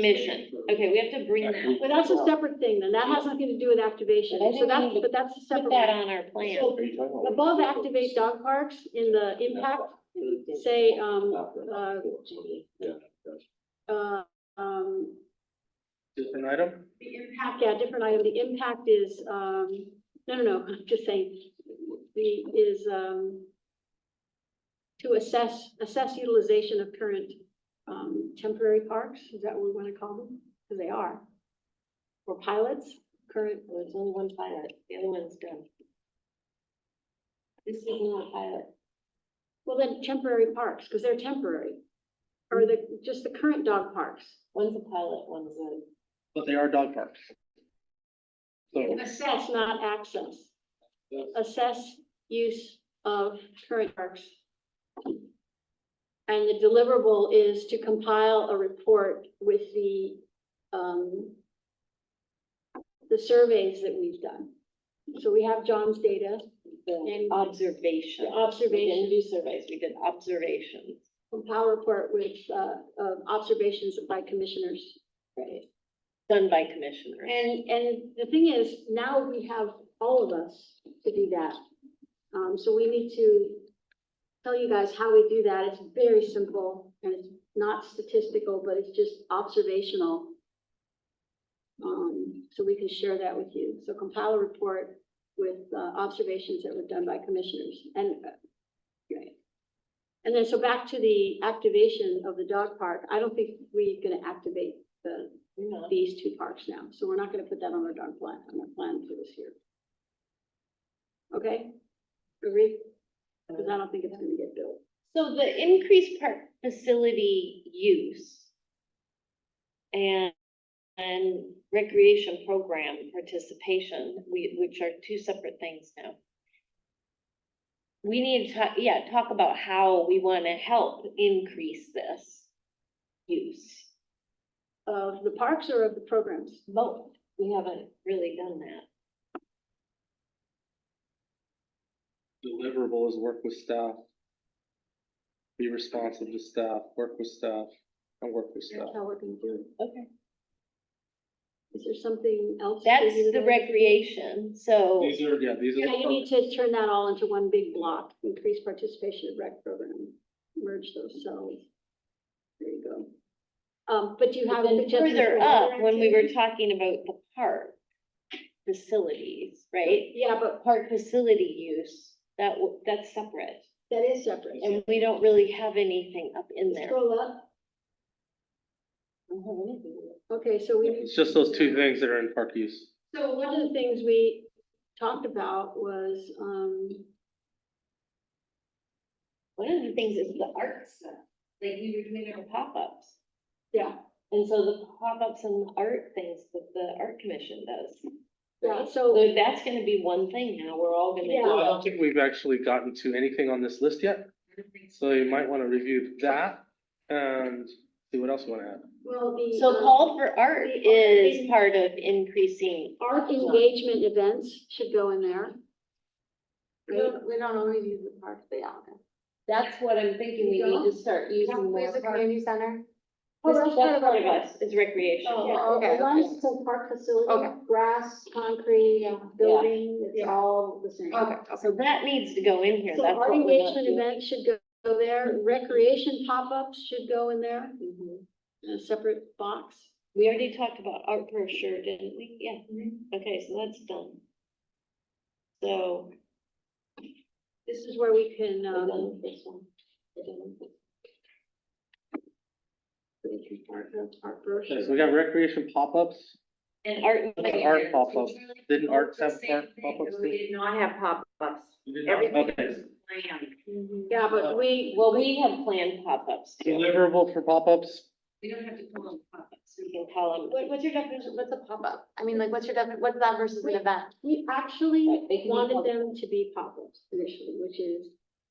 commission. Okay, we have to bring that, Actually, But that's a separate thing, then that has nothing to do with activation, But I think so we that's, need to but that's a put separate. that one. on our plan. So Are you talking about- Above activate dog parks in the impact, say, um, uh, Yeah. uh, um, Different item? the impact, yeah, different item, the impact is, um, no, no, no, I'm just saying, the, is, um, to assess, assess utilization of current, um, temporary parks, is that what we wanna call them? Because they are. Or pilots, current, Well, There's only one pilot, the other one's done. This is not a pilot. well then temporary parks, because they're temporary. Or the, just the current dog parks. One's a pilot, one's a. But they are dog parks. So, Assess, not access. Yes. Assess use of current parks. And the deliverable is to compile a report with the, um, the surveys that we've done. So we have John's data, the And- observation. The observation. We didn't do surveys, we did observations. compile report with, uh, uh, observations by commissioners. Right. Done by commissioners. And, and the thing is, now we have all of us to do that. Um, so we need to tell you guys how we do that. It's very simple and it's not statistical, but it's just observational. Um, so we can share that with you. So compile a report with, uh, observations that were done by commissioners and, uh, right. And then, so back to the activation of the dog park, I don't think we're gonna activate the We're not. these two parks now, so we're not gonna put that on our darn plan, on our plan for this year. Okay, agree? Cause I don't think it's gonna get built. So the increased park facility use and, and recreation program participation, we, which are two separate things now. We need to talk, yeah, talk about how we want to help increase this use. Of the parks or of the programs? Both, we haven't really done that. deliverable is work with staff. Be responsive to staff, work with staff, and work with That's staff. how we're gonna do Okay. it. Is there something else? for That's you the guys? recreation, so, These are, yeah, these are. Yeah, the you need to turn that all into one big block, increase participation of rec program, merge those cells. There you go. Um, but you but have. then suggestions further for other up, when we were activities? talking about the park facilities, right? Yeah, but park facility use, that, w- that's separate. that is separate. And we don't really have anything up in there. Scroll up, okay, so we. It's just those two things that are in park use. So one of the things we talked about was, um, One of the things is the art stuff, like we were doing our pop-ups. yeah, And so the pop-ups and the art things that the art commission does. yeah, so, So that's gonna be one thing now, we're all gonna Yeah. Well, I do. don't think we've actually gotten to anything on this list yet, so you might wanna review that and see what else you wanna add. well, the. it. So um, call for art The art is is- part of increasing. Art engagement events should go in there. We don't, we don't always use the park, they all do. That's what I'm thinking, we need to start There's a community center. Oh, That's that's part of part of our- us, is recreation. Yeah, Oh, uh, okay, as long as okay. it's a park facility, Okay. grass, concrete, building, it's Yeah. all the same. So that needs to go in here, So that's what art we're not engagement doing. events should go- go there, recreation pop-ups should go in there, Mhm. in a separate box. We already talked about art for sure, didn't we? Yeah, okay, so that's done. So. This is where we can, we're um, done with this one. We're done with this. we can start the art brochure. Okay, so we got recreation pop-ups, And art. What about art pop-ups? Didn't arts have park pop-ups? We did not have pop-ups. Everything Okay, was planned. Mhm. Yeah, but we, Well, we have planned pop-ups too, deliverable for pop-ups, We don't have to call them pop-ups. so you can call them. What, what's your definition, what's a pop-up? I mean, like, what's your definition, what's that versus an event? We actually Right, they can be wanted public. them to be pop-ups initially, which is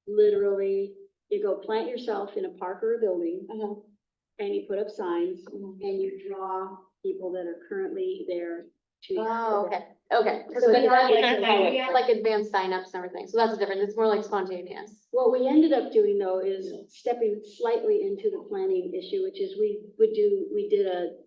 literally, you go plant yourself in a park or a building Mm-hmm. and you put up signs and you draw people that are currently there two years. Oh, okay, okay. So So it's not it's not like like, how it we had like advanced signups and everything, so that's different, it's more like spontaneous. What we ended up doing though is stepping slightly into the planning issue, which is we would do, we did a